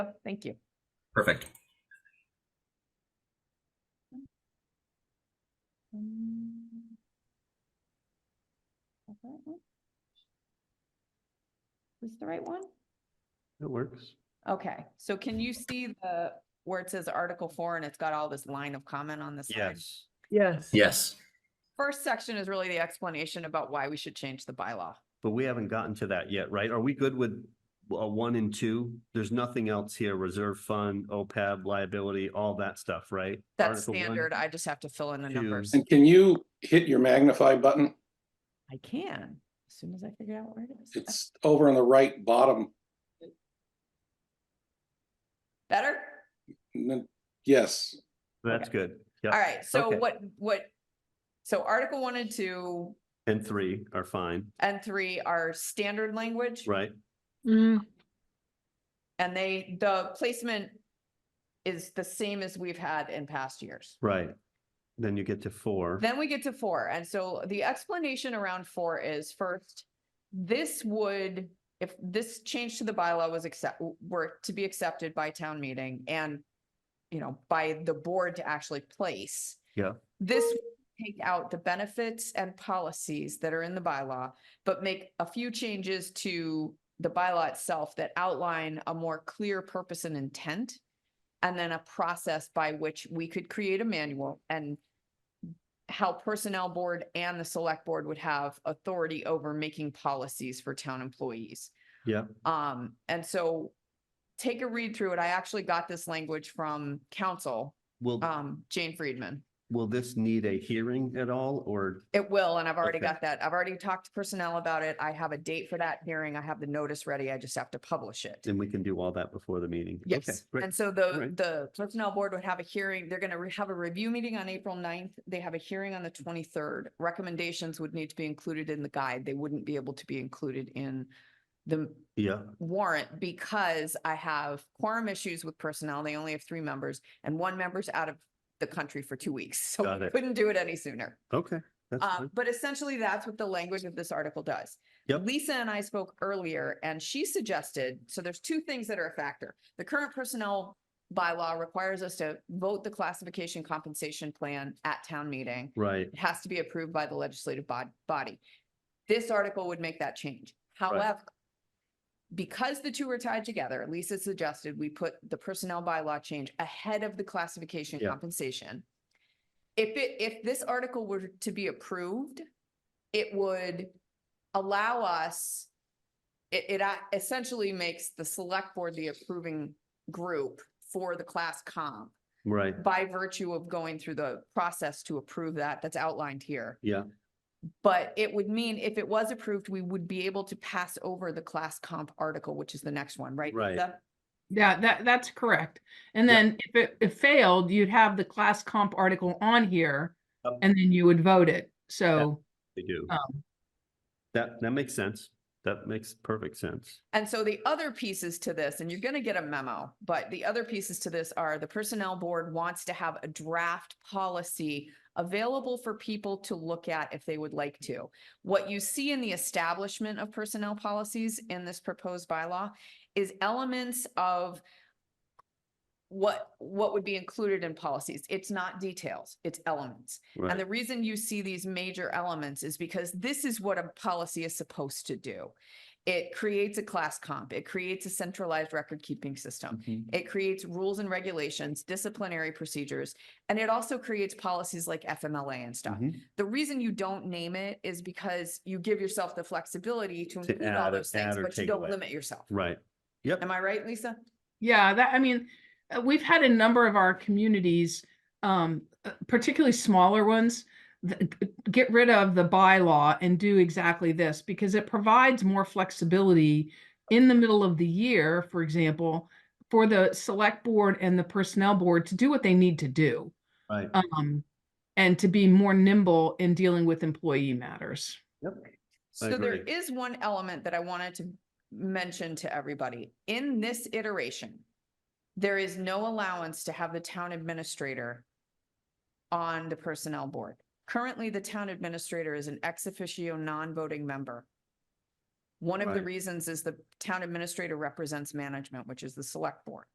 Thank you. Perfect. Mm. Is that right one? Is the right one? It works. Okay, so can you see the, where it says Article Four and it's got all this line of comment on the side? Yes. Yes. Yes. First section is really the explanation about why we should change the bylaw. But we haven't gotten to that yet, right? Are we good with uh, one and two? There's nothing else here, reserve fund, OPEB, liability, all that stuff, right? That's Article one, standard. I just have to fill in the two. numbers. And can you hit your magnify button? I can, as soon as I figure out where it is. It's over on the right bottom. Better? N- Yes, That's good. All Yeah, right, so Okay. what, what, so Article One and Two and three are fine, and Three are standard language? right? Mm, And they, the placement is the same as we've had in past years. Right. Then you get to four. Then we get to four. And so the explanation around four is first, this would, if this change to the bylaw was accept, were to be accepted by town meeting and, you know, by the board to actually place. Yeah. This would take out the benefits and policies that are in the bylaw, but make a few changes to the bylaw itself that outline a more clear purpose and intent. And then a process by which we could create a manual and how personnel board and the select board would have authority over making policies for town employees. Yeah. Um, and so take a read through it. I actually got this language from council, Will, um, Jane Friedman. will this need a hearing at all or? It will, and I've already Okay. got that. I've already talked to personnel about it. I have a date for that hearing. I have the notice ready. I just have to publish it. And we can do all that before the meeting? Okay, Yes, great. and so the, Alright. the personnel board would have a hearing, they're gonna re- have a review meeting on April 9th. they have a hearing on the twenty-third. Recommendations would need to be included in the guide, they wouldn't be able to be included in the Yeah, warrant because I have quorum issues with personnel, they only have three members, and one member's out of the country for two weeks, so Got we it. couldn't do it any sooner. okay. That's Uh, fine. but essentially, that's what the language of this article does. Yep. Lisa and I spoke earlier and she suggested, so there's two things that are a factor. The current personnel bylaw requires us to vote the classification compensation plan at town meeting. Right, It has to be approved by the legislative bod- body. This article would make that change. However, because the two are tied together, Lisa suggested we put the personnel bylaw change ahead of the classification Yeah. compensation. If it, if this article were to be approved, it would allow us, it, it a- essentially makes the select board the approving group for the class comp right. by virtue of going through the process to approve that, that's outlined here. Yeah. But it would mean if it was approved, we would be able to pass over the class comp article, which is the next one, right? Right. Lisa? yeah, that, that's correct. And Yeah. then if it, it failed, you'd have the class comp article on here Yep. and then you would vote it. So, They do. um, That, that makes sense. That makes perfect sense. And so the other pieces to this, and you're gonna get a memo, but the other pieces to this are the personnel board wants to have a draft policy available for people to look at if they would like to. What you see in the establishment of personnel policies in this proposed bylaw is elements of what, what would be included in policies. It's not details, it's elements. And Right, the reason you see these major elements is because this is what a policy is supposed to do. It creates a class comp, it creates a centralized record keeping system. It creates rules and regulations, disciplinary procedures, and it also creates policies like FMLA and stuff. Mhm. The reason you don't name it is because you give yourself the flexibility to To include all add or- those things, add or but you take don't away. limit yourself. right. Yep. Am I right, Lisa? yeah, that, I mean, uh, we've had a number of our communities, um, uh, particularly smaller ones, th- get rid of the bylaw and do exactly this because it provides more flexibility in the middle of the year, for example, for the select board and the personnel board to do what they need to do. Right. um, and to be more nimble in dealing with employee matters. I So there agree. is one element that I wanted to mention to everybody. In this iteration, there is no allowance to have the town administrator on the personnel board. Currently, the town administrator is an ex officio non-voting member. One of the Right. reasons is the town administrator represents management, which is the select board.